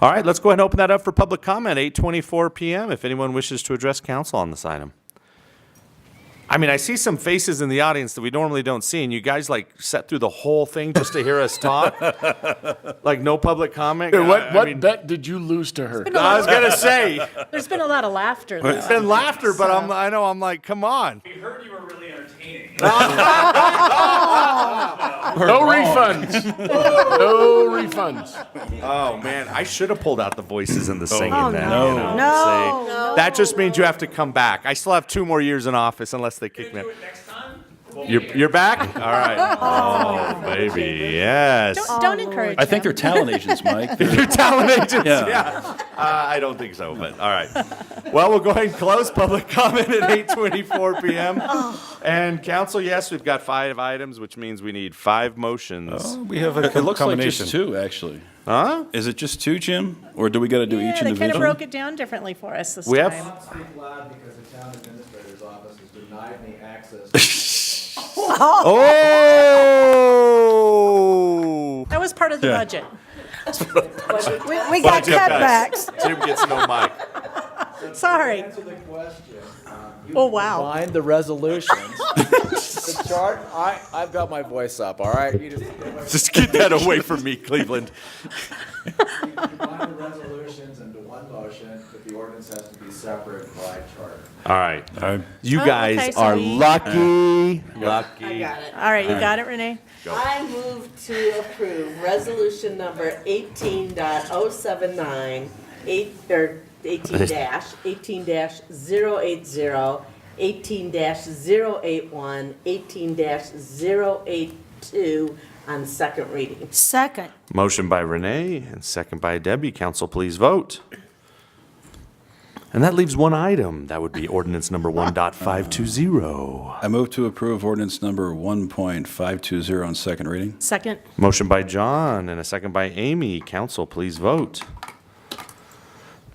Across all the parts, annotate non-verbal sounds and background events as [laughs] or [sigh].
All right, let's go ahead and open that up for public comment, 8:24 PM, if anyone wishes to address council on this item. I mean, I see some faces in the audience that we normally don't see, and you guys like sat through the whole thing just to hear us [laughs] talk? Like, no public comment? I- What, I mean, what bet did you lose to her? I was gonna say, There's been a lot of laughter, though. it's been laughter, but I'm, I know, I'm like, come on. We heard you were really entertaining. No refunds. [laughs] No refunds. Oh, man, I should have pulled out the voices and the singing Oh, then. no. you know, No. say- No. That just means you have to come back. I still have two more years in office unless they kick me. out. Do it next time? You're, you're back? [laughs] All right. Oh, baby, yes. Oh, Don't, don't encourage I think him. they're talent agents, Mike. They're- Your talent agents, Yeah. yeah. Uh, I don't think so, but all right. Well, we'll go ahead and close public comment at 8:24 PM. Oh. And council, yes, we've got five items, which means we need five motions. We have a It looks like combination. just two, actually. Huh? Is it just two, Jim? Or do we got to do each Yeah, they kind of individual? broke it down differently for us this We have- time. not speak loud because the town administrator's office has denied me access [laughs] Oh! That was part of the Yeah. budget. We, we got cutbacks. Jim gets no mic. Sorry. to the question. Oh, wow. Find the resolutions. The chart, I, I've got my voice up, all right? You just Just get that away from me, Cleveland. combine the resolutions into one motion, but the ordinance has to be separate by charter. All right. All right. You Oh, guys okay, so are we- lucky. Uh, Lucky. All right, you got it, Renee? I move to approve resolution number eighteen dot oh seven nine, eight, or eighteen dash, eighteen dash zero eight zero, eighteen dash zero eight one, eighteen dash zero eight two on second reading. Second. Motion by Renee and second by Debbie. Council, please vote. And that leaves one item. That would be ordinance number 1.520. I move to approve ordinance number 1.520 on second reading. Second. Motion by John and a second by Amy. Council, please vote.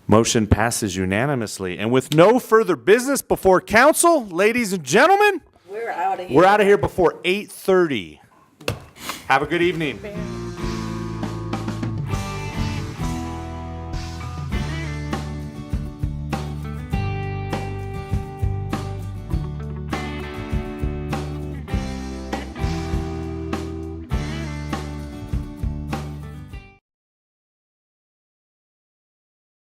Motion passes unanimously. And with no further business before council, ladies and gentlemen, We're out of here. We're out of here before 8:30. Have a good evening.